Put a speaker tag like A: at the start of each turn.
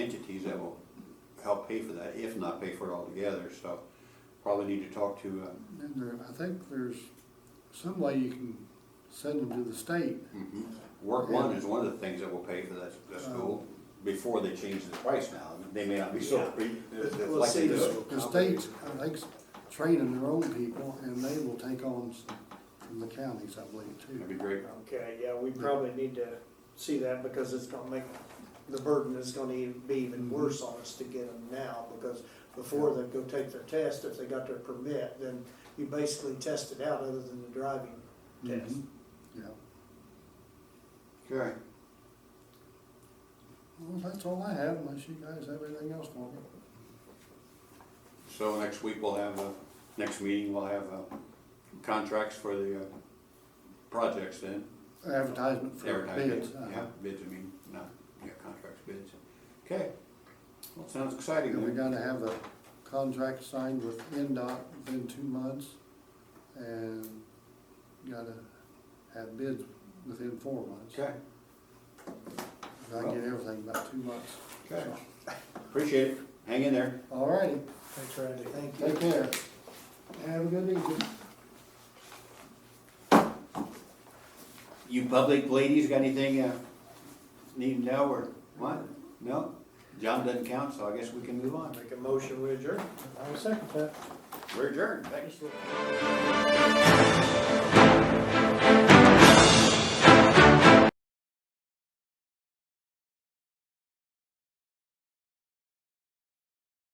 A: help pay for that, if not pay for it altogether, so probably need to talk to, um,
B: And there, I think there's some way you can send them to the state.
A: Work one is one of the things that will pay for that, the
B: Uh.
A: school, before they change the price now, they may not be so,
C: We'll
A: like
C: see.
A: they do it.
B: The states, I think, training their own people, and they will take on some from the counties, I believe,
A: That'd be
B: too.
A: great.
C: Okay, yeah, we probably need to see that because it's gonna make, the burden is gonna even- be even worse on us to get them now because before they go take their test, if they got their permit, then you basically test it out other than the driving test.
B: Mhm. Yeah,
A: Okay.
B: well, that's all I have, unless you guys have anything else for me.
A: So next week we'll have, uh, next meeting, we'll have, uh, contracts for the, uh, projects then.
B: Advertisement for bids.
A: Advertising, Yeah,
B: uh-huh.
A: bids, I mean, not, yeah, contracts, bids. Okay. Well, sounds exciting.
B: And we
A: then.
B: gotta have a contract signed with NDOT within two months, and gotta have bids within four months.
A: Okay,
B: I get everything about two months.
A: okay. Appreciate it. Hang in there.
B: All righty,
C: Thanks, Randy. Thank you.
B: take care. Have a good evening.
A: You public ladies got anything, uh, need to know or what? No? John doesn't count, so I guess we can move on.
C: Make a motion, we adjourn.
A: We're adjourned. Thanks.